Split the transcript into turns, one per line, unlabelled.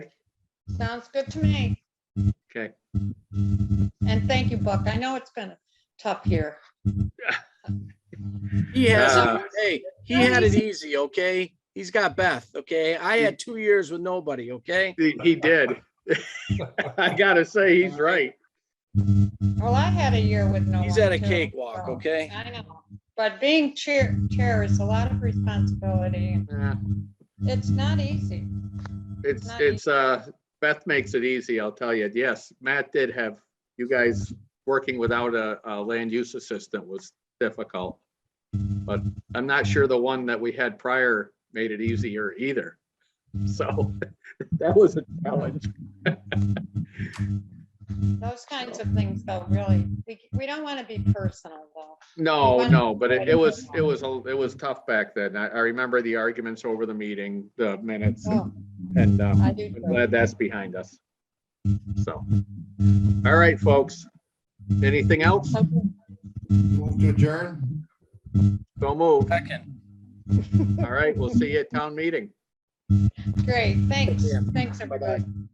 Sounds good to me.
Okay.
And thank you, Buck. I know it's been tough here.
He has,
Ah.
it. hey, he had it easy, okay? He's got Beth, okay? I had two years with nobody, okay?
He, he did. I gotta say, he's right.
Well, I had a year with no one.
He's at a
too,
cakewalk,
so-
okay?
I know, but being chair, chair is a lot of responsibility. and
Uh,
It's not easy.
It's, it's, uh, Beth makes it easy, I'll tell you. Yes, Matt did have, you guys working without a, a land use assistant was difficult. But I'm not sure the one that we had prior made it easier either. So that was a challenge.
Those kinds of things though, really, we, we don't want to be personal though.
No, no, but it, it was, it was, a- it was tough back then. I, I remember the arguments over the meeting, the minutes and-
Oh,
and, um,
I do.
I'm
too.
glad that's behind us. So, all right, folks. Anything else?
Okay.
Move to adjourn?
Don't move.
Second.
All right, we'll see you at town meeting.
Great, thanks. Thanks, everybody.